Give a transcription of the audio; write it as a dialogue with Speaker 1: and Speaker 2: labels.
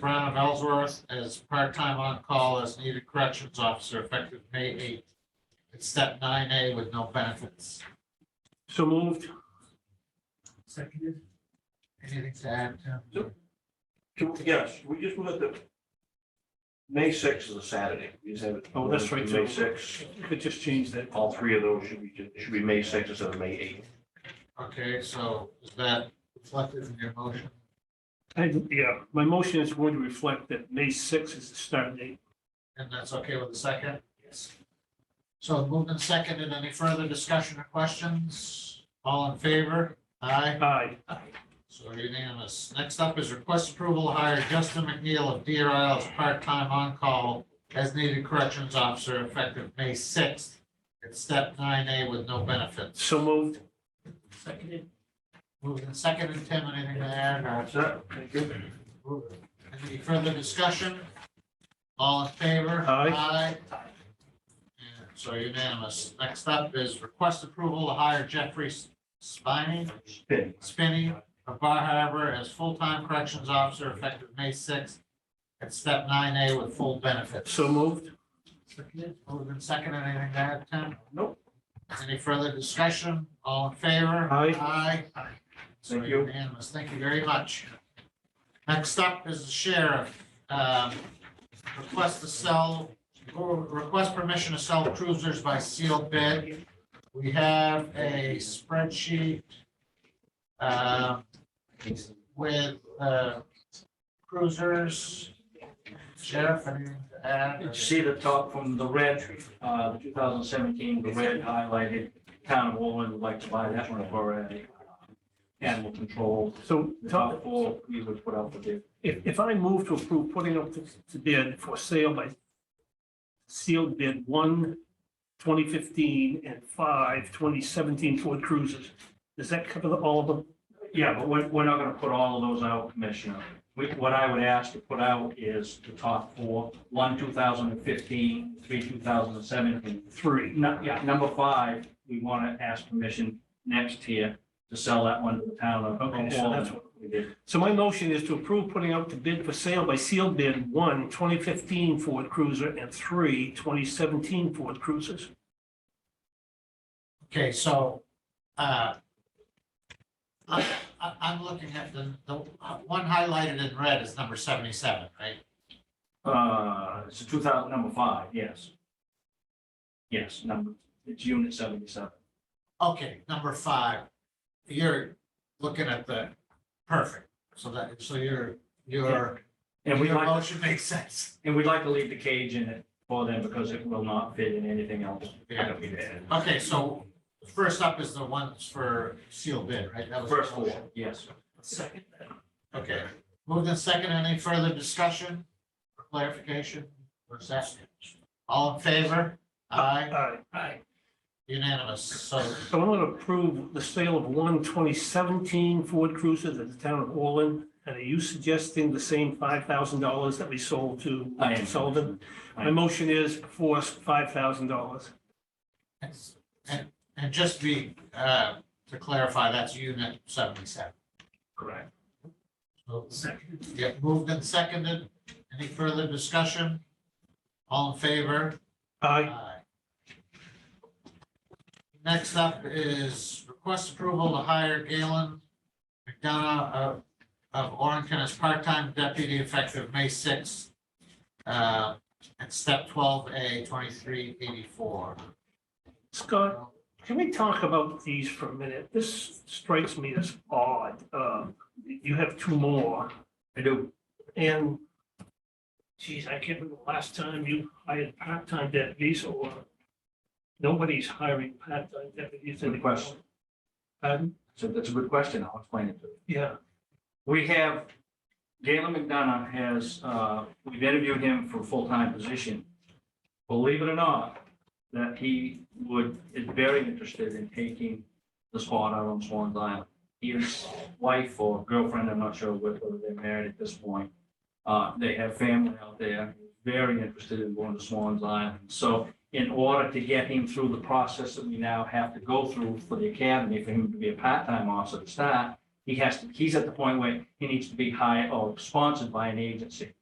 Speaker 1: Brown of Ellsworth as part-time on-call as needed corrections officer effective May eighth. It's step nine A with no benefits.
Speaker 2: So moved.
Speaker 1: Seconded. Anything to add, Tim?
Speaker 3: Nope. Can, we- yeah, should we just move it to? May sixth is a Saturday. We just have it.
Speaker 2: Oh, that's right, too.
Speaker 3: May sixth,
Speaker 2: You could just change that.
Speaker 3: all three of those should be, should be May sixth instead of May eighth.
Speaker 1: Okay, so is that reflected in your motion?
Speaker 2: I- Yeah, my motion is going to reflect that May sixth is the start date.
Speaker 1: And that's okay with the second? Yes. So moved and seconded. Any further discussion or questions? All in favor? Aye.
Speaker 2: Aye.
Speaker 1: So unanimous. Next up is request approval to hire Justin McNeil of Deer Isle as part-time on-call as needed corrections officer effective May sixth. It's step nine A with no benefits.
Speaker 2: So moved.
Speaker 1: Seconded. Moved and seconded. Tim, anything to add or?
Speaker 3: That's it. Thank you.
Speaker 1: Any further discussion? All in favor?
Speaker 2: Aye.
Speaker 1: Aye. And So unanimous. Next up is request approval to hire Jeffrey Spiny,
Speaker 3: Spin.
Speaker 1: Spinney of Bar Harbor as full-time corrections officer effective May sixth at step nine A with full benefits.
Speaker 2: So moved.
Speaker 1: Moved and seconded. Anything to add, Tim?
Speaker 3: Nope.
Speaker 1: Any further discussion? All in favor?
Speaker 2: Aye.
Speaker 1: Aye. So
Speaker 3: Thank you.
Speaker 1: unanimous. Thank you very much. Next up is the sheriff. Um, Request to sell, or request permission to sell cruisers by sealed bid. We have a spreadsheet um, with uh, cruisers. Sheriff, anything to add?
Speaker 4: Did you see the top from the red, uh, the two thousand seventeen, the red highlighted, town of Orland would like to buy that one for a animal control.
Speaker 2: So
Speaker 4: The
Speaker 2: Tom,
Speaker 4: top four, we would put out the bid.
Speaker 2: if, if I move to approve putting up the the bid for sale by sealed bid one 2015 and five 2017 Ford Cruisers, does that cover the- all of them?
Speaker 4: Yeah, but we're, we're not gonna put all of those out, Commissioner. We, what I would ask to put out is the top four, one two thousand and fifteen, three two thousand and seventeen.
Speaker 2: Three.
Speaker 4: Nu- yeah, number five, we wanna ask permission next year to sell that one to the town of
Speaker 2: Okay, so that's
Speaker 4: Orland. We did
Speaker 2: So my motion is to approve putting out the bid for sale by sealed bid one 2015 Ford Cruiser and three 2017 Ford Cruisers.
Speaker 1: Okay, so, uh, I, I, I'm looking at the, the one highlighted in red is number seventy-seven, right?
Speaker 4: Uh, it's two thousand, number five, yes. Yes, number, it's unit seventy-seven.
Speaker 1: Okay, number five, you're looking at the, perfect, so that, so your, your,
Speaker 4: And we'd
Speaker 1: your
Speaker 4: like,
Speaker 1: motion makes sense.
Speaker 4: and we'd like to leave the cage in it for them because it will not fit in anything else.
Speaker 1: Yeah. Okay, so first up is the ones for sealed bid, right? That was the
Speaker 4: First floor,
Speaker 1: motion.
Speaker 4: yes.
Speaker 2: Second.
Speaker 1: Okay, move the second, any further discussion, or clarification, or assessment? All in favor? Aye.
Speaker 2: Aye.
Speaker 1: Unanimous, so,
Speaker 2: So I'm going to approve the sale of one 2017 Ford Cruiser to the town of Orland. And are you suggesting the same $5,000 that we sold to
Speaker 4: I am.
Speaker 2: Sullivan? My motion is for $5,000.
Speaker 1: and, and just be, uh, to clarify, that's unit seventy-seven.
Speaker 4: Correct.
Speaker 1: Yeah, moved and seconded, any further discussion? All in favor?
Speaker 2: Aye.
Speaker 1: Aye. Next up is request approval to hire Galen McDonough of, of Orrington as part-time deputy effective May sixth. Uh, at step twelve A twenty-three eighty-four.
Speaker 2: Scott, Can we talk about these for a minute? This strikes me as odd. Um, You have two more,
Speaker 4: I do.
Speaker 2: and geez, I can't remember the last time you hired part-time deputies or nobody's hiring part-time deputies.
Speaker 4: Good question.
Speaker 2: Pardon?
Speaker 4: So that's a good question. I'll explain it to you.
Speaker 2: Yeah,
Speaker 4: We have, Galen McDonough has, uh, we've interviewed him for a full-time position. Believe it or not, that he would, is very interested in taking the spot out on Swan's Island. His wife or girlfriend, I'm not sure whether they're married at this point. Uh, They have family out there, very interested in going to Swan's Island. So in order to get him through the process that we now have to go through for the academy, for him to be a part-time officer to start, He has to, he's at the point where he needs to be hired or sponsored by an agency.